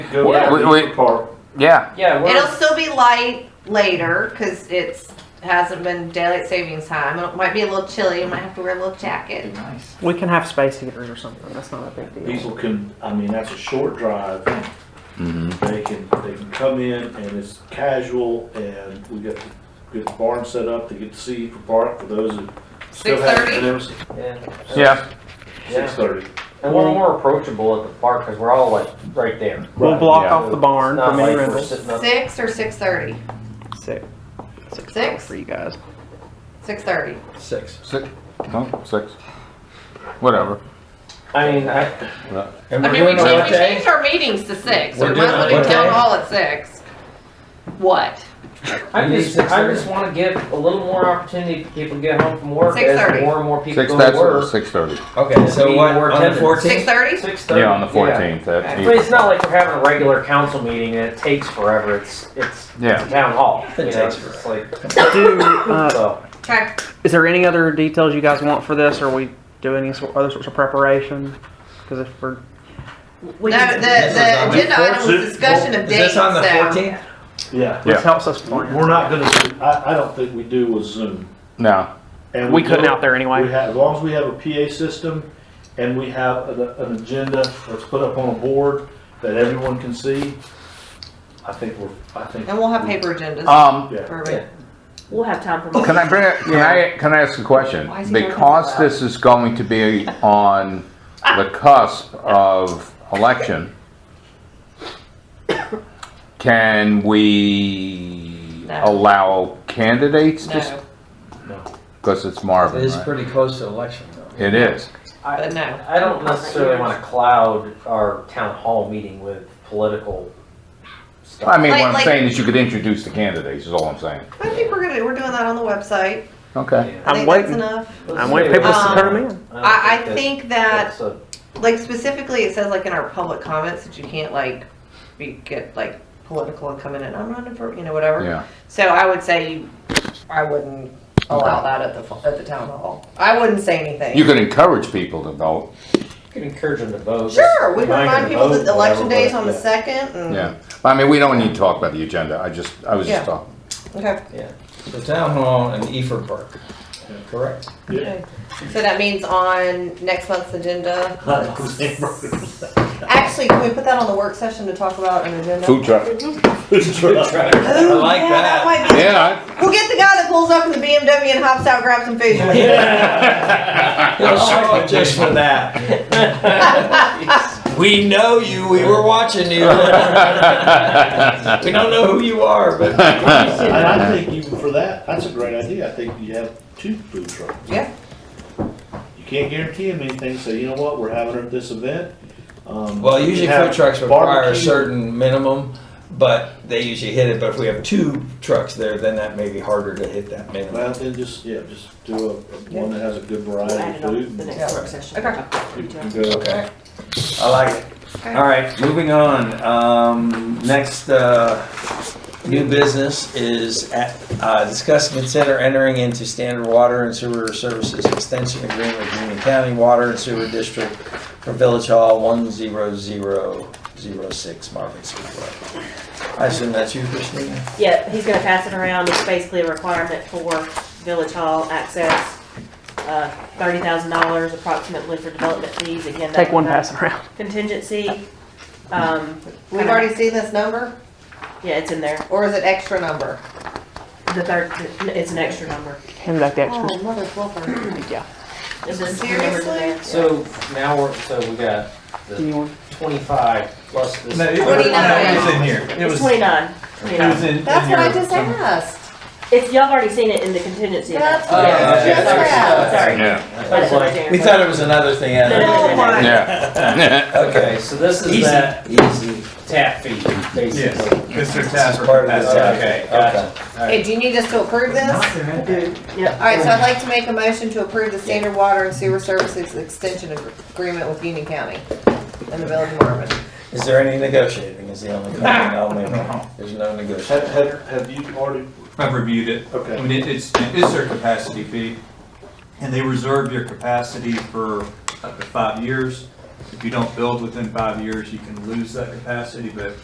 Go Yeah. back We- to we- the park. Yeah, Yeah, It'll we're, still be light later because it's hasn't been daylight savings time. It might be a little chilly. You might have to wear a little jacket. Nice. We can have space heaters or something. That's not a big deal. Diesel can, I mean, that's a short drive. Mm-hmm. They can, they can come in and it's casual and we get, get the barn set up to get to see for park for those who still have. 6:30? Yeah. yeah. Six thirty. And we're more approachable at the park because we're all like right there. We'll block Yeah. off the barn It's not from any like we're rentals. sitting up- Six or six thirty. Six. Six. Six? for you guys. Six thirty. Six. Six, no, six. Whatever. I mean, I, And I mean, we're we doing changed, what we day? changed our meetings to six. We're We might as well doing do what town day? hall at six. What? I You need just, six I thirty? just want to give a little more opportunity for people to get home from work Six as thirty. more and more people Six, go to that's, work. six thirty. Okay, so We what, were on the attendance. Six fourteenth? thirty? Six thirty. Yeah, on the fourteenth, I that, mean, it's not like we're having a regular council meeting and it takes forever. It's it's yeah. town hall. It you know, takes it's like Do, uh, so. Okay. is there any other details you guys want for this? Or we do any sor- other sorts of preparation? Because if we're No, the, This is the on the agenda item was fourteenth. discussion of Is dates, this on the so. fourteenth? Yeah. this Yeah. helps us plan. We're not gonna, do- I, I don't think we do with Zoom. No, And we couldn't don't- out there anyway. We have, as long as we have a PA system and we have an, an agenda that's put up on a board that everyone can see, I think we're, I think. And we'll have paper agendas. um, Yeah. for- yeah. We'll have time for more. can I bring, a- can I, can I ask a question? Why is he doing Because that? this is going to be on the cusp of election, can we No. allow candidates to, No, because it's Marvin, It is right? pretty close to election though. It is, I, but no. I don't necessarily want to cloud our town hall meeting with political stuff. I mean, what Like- I'm like- saying is you could introduce the candidates, is all I'm saying. I think we're gonna, we're doing that on the website. Okay. Yeah. I I'm think that's waiting. enough. I'm waiting for people Um, to turn them in. don't I, I that's- think that that's a- like specifically it says like in our public comments that you can't like be get like political and come in and I'm running for you know whatever. Yeah, So I would say I wouldn't allow that at the fu- at the town hall. I wouldn't say anything. you can encourage people to vote, You can encourage them to vote. sure, we can remind them to people vote, that the election whatever, day is on the but, second. And, yeah. I mean, we don't need to talk about the agenda, I just, I was just Mm-hmm. Yeah. talking. Okay. The town hall and Efer Park, correct? Yeah. okay. So that means on next month's agenda. Actually, can we put that on the work session to talk about an agenda? Food truck, Ooh, I like yeah, that. might be- yeah. I- We'll get the guy that pulls up in the BMW and hops out, grabs some food. Oh, just for that. We know you, we were watching you. We don't know who you are, but And I think even for that, that's a great idea. I think you have two food trucks. Yeah. You can't guarantee them anything, so you know what, we're having this event. um, well, you usually have food trucks require a barbecue. certain minimum, but they usually hit it. But if we have two trucks there, then that may be harder to hit that minimum. Well, then just, yeah, just do a, a- one that has a good We'll variety of add it on to food. the and next work session. Okay. you can Okay. go- Okay, I like it. Okay. All right, moving on. Um, next, uh, new business is at, uh, discuss, and consider entering into standard water and sewer services extension agreement with Union County Water and Sewer District for Village Hall one zero zero zero six Marvin Speedway. I assume that's you, Christina? Yeah, he's gonna pass it around. It's basically a requirement for Village Hall access. Uh, thirty thousand dollars approximately for development fees. Again, that- Take one pass around. Contingency. Um, We've already seen this number, yeah, it's in there. or is it extra number? The third, it's an extra number. Hand back the extras. mother fluffer. Yeah. It's just numbered in there. So now we're, so we got Do you want? twenty-five plus this. Twenty-nine. was in here. It It's twenty-nine. was 29. in. That's what I just asked. It's, y'all have already seen it in the contingency. Oh, That's Yeah, what I yeah, just yeah. asked. Sorry. Yeah, I was like, We thought it was another thing. out of it. No, no, no. yeah. Okay. okay, so this is that Easy. tap fee, basically. Mr. This is part of the- Okay, gotcha. Hey, do you need us to approve this? I do. Yep. All right, so I'd like to make a motion to approve the standard water and sewer services extension ag- agreement with Union County and the Village of Marvin. Is there any negotiating is the only comment I'll make. There's no negotiating. Have, have, have you already, I've reviewed it. I okay, mean, it- it's, it is their capacity fee, and they reserve your capacity for up to five years. If you don't build within five years, you can lose that capacity, but